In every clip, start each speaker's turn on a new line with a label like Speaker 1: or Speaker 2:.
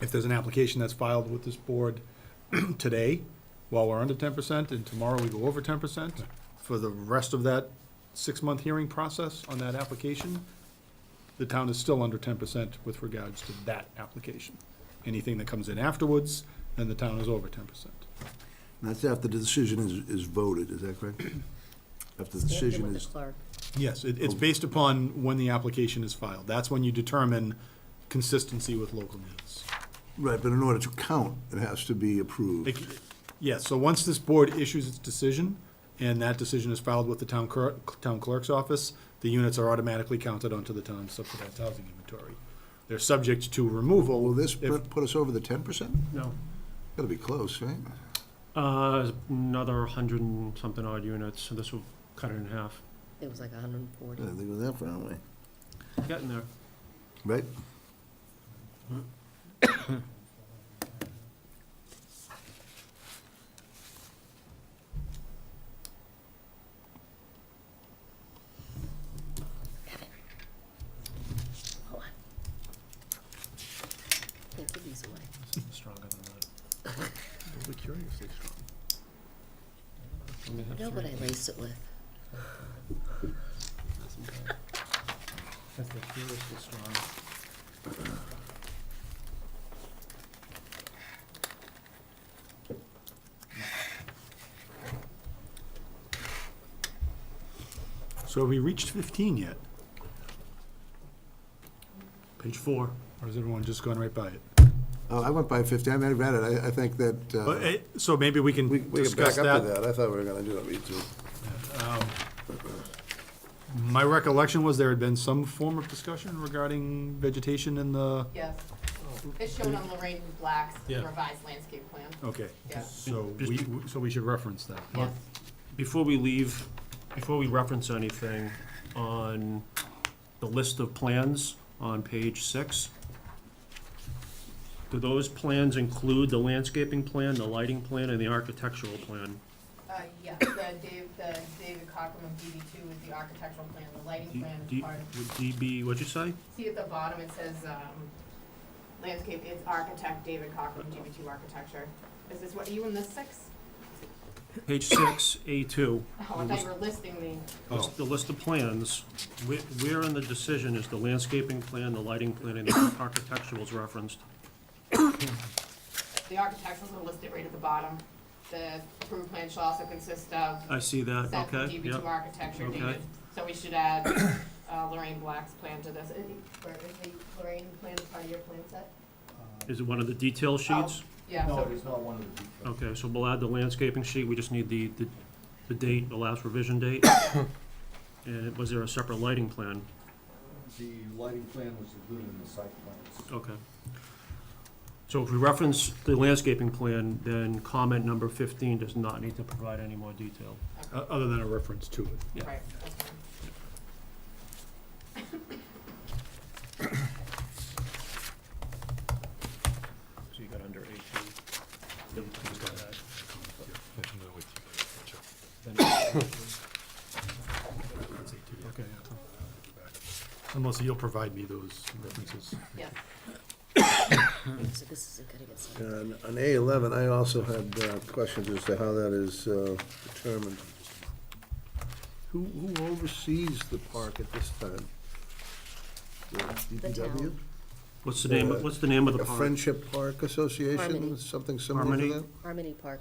Speaker 1: if there's an application that's filed with this board today, while we're under ten percent, and tomorrow we go over ten percent, for the rest of that six-month hearing process on that application, the town is still under ten percent with regards to that application. Anything that comes in afterwards, then the town is over ten percent.
Speaker 2: And That's after the decision is, is voted, is that correct? After the decision is,
Speaker 1: Yes, it, it's based upon when the application is filed. That's when you determine consistency with local needs.
Speaker 2: right, but in order to count, it has to be approved.
Speaker 1: It- Yes, so once this board issues its decision, and that decision is filed with the town clerk, town clerk's office, the units are automatically counted onto the town's subsidized housing inventory. They're subject to removal.
Speaker 2: Will this
Speaker 1: if-
Speaker 2: put put us over the ten percent?
Speaker 3: No.
Speaker 2: Gotta be close, right?
Speaker 3: Uh, another hundred and something odd units, so this will cut it in half.
Speaker 4: It was like hundred and forty.
Speaker 2: I think it was that far away.
Speaker 3: Getting there.
Speaker 2: Right?
Speaker 4: Can't give these away.
Speaker 3: This is stronger than that.
Speaker 4: You know what I laced it with?
Speaker 3: That's the curiously strong.
Speaker 1: So have we reached fifteen yet?
Speaker 3: Page four.
Speaker 1: Or has everyone just gone right by it?
Speaker 2: Oh, I went by fifty, I mean, I read it, I, I think that, uh,
Speaker 1: But, eh, so maybe we
Speaker 2: we,
Speaker 1: can
Speaker 2: we can
Speaker 1: discuss
Speaker 2: back up to
Speaker 1: that.
Speaker 2: that, I thought we were gonna do that, me too.
Speaker 1: My recollection was there had been some form of discussion regarding vegetation in the,
Speaker 5: Yes, it's shown on Lorraine Black's
Speaker 3: Yeah.
Speaker 5: revised landscape plan,
Speaker 1: okay.
Speaker 5: Yeah.
Speaker 1: So we, so we should reference that.
Speaker 5: yes.
Speaker 3: Before we leave, before we reference anything, on the list of plans on page six, do those plans include the landscaping plan, the lighting plan, and the architectural plan?
Speaker 5: Uh, yeah, the Dave, the David Cockrum of DB two is the architectural plan, the lighting
Speaker 3: D-
Speaker 5: plan is
Speaker 3: D-
Speaker 5: part of,
Speaker 3: would DB, what'd you say?
Speaker 5: see at the bottom, it says, um, landscape, it's architect David Cockrum, DB two architecture. Is this what, are you in the six?
Speaker 3: Page six, A two.
Speaker 5: Oh, I thought you were listing the,
Speaker 1: Oh,
Speaker 3: The list of plans, whe- where in the decision is the landscaping plan, the lighting plan, and the architectural's referenced?
Speaker 5: the architecturals are listed right at the bottom. The approved plan shall also consist of
Speaker 3: I see that,
Speaker 5: set
Speaker 3: Uh, okay,
Speaker 5: DB two
Speaker 3: yeah.
Speaker 5: architecture,
Speaker 3: Okay.
Speaker 5: David, so we should add, uh, Lorraine Black's plan to this. Is it- or is the Lorraine plan part of your plan set?
Speaker 3: Is it one of the detail sheets?
Speaker 5: Oh, Yeah,
Speaker 6: No,
Speaker 5: so,
Speaker 6: it is not one of the details.
Speaker 3: Okay, so we'll add the landscaping sheet, we just need the, the, the date, the last revision date. And was there a separate lighting plan?
Speaker 6: The lighting plan was included in the site plans.
Speaker 3: Okay. So if we reference the landscaping plan, then comment number fifteen does not need to provide any more detail.
Speaker 1: o- other than a reference to it.
Speaker 3: Yeah.
Speaker 5: right, that's fine.
Speaker 3: So you got under eighteen. Okay,
Speaker 1: Unless you'll provide me those references.
Speaker 5: Yes.
Speaker 4: So this isn't gonna get signed.
Speaker 2: On on A eleven, I also had uh, questions as to how that is uh, determined. Who, who oversees the park at this time? The DPW?
Speaker 4: town.
Speaker 3: What's the name, of- what's the name of the
Speaker 2: A
Speaker 3: park?
Speaker 2: Friendship Park Association,
Speaker 4: Harmony.
Speaker 2: something similar to
Speaker 3: Harmony?
Speaker 2: that?
Speaker 4: Harmony Park.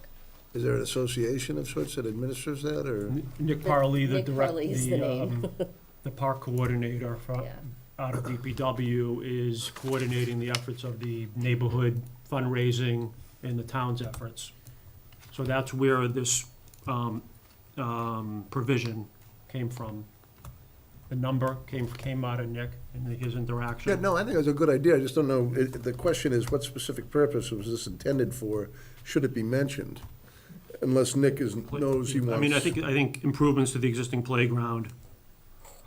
Speaker 2: Is there an association of sorts that administers that, or?
Speaker 3: Nick Parley, the
Speaker 4: Nick
Speaker 3: direct,
Speaker 4: Parley is the
Speaker 3: the,
Speaker 4: name.
Speaker 3: um, the park coordinator for,
Speaker 4: Yeah.
Speaker 3: out of DPW is coordinating the efforts of the neighborhood fundraising and the town's efforts. So that's where this, um, um, provision came from. The number came, came out of Nick and his
Speaker 2: Yeah,
Speaker 3: interaction.
Speaker 2: no, I think it's a good idea, I just don't know, it- the question is, what specific purpose was this intended for? Should it be mentioned? Unless Nick is, knows he wants.
Speaker 3: I mean, I think, I think improvements to the existing playground,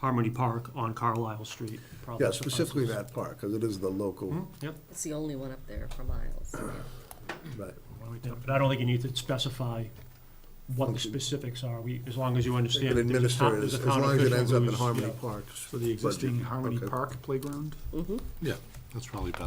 Speaker 3: Harmony Park on Carlisle Street. probably
Speaker 2: Yeah, specifically
Speaker 3: suffices.
Speaker 2: that park, because it is the local,
Speaker 3: Yep.
Speaker 4: It's the only one up there for miles.
Speaker 2: right.
Speaker 3: Yeah, But I don't think you need to specify what the specifics are, we, as long as you understand. that there's a
Speaker 2: Administer
Speaker 3: town-
Speaker 2: it,
Speaker 3: there's
Speaker 2: as
Speaker 3: a
Speaker 2: as
Speaker 3: town
Speaker 2: long as it
Speaker 3: official
Speaker 2: ends up in
Speaker 3: who's-
Speaker 2: Harmony
Speaker 3: yeah.
Speaker 2: Parks.
Speaker 1: For the existing
Speaker 2: Budget,
Speaker 1: Harmony
Speaker 2: okay.
Speaker 1: Park playground?
Speaker 4: Mm-hmm.
Speaker 7: Yeah, that's probably better.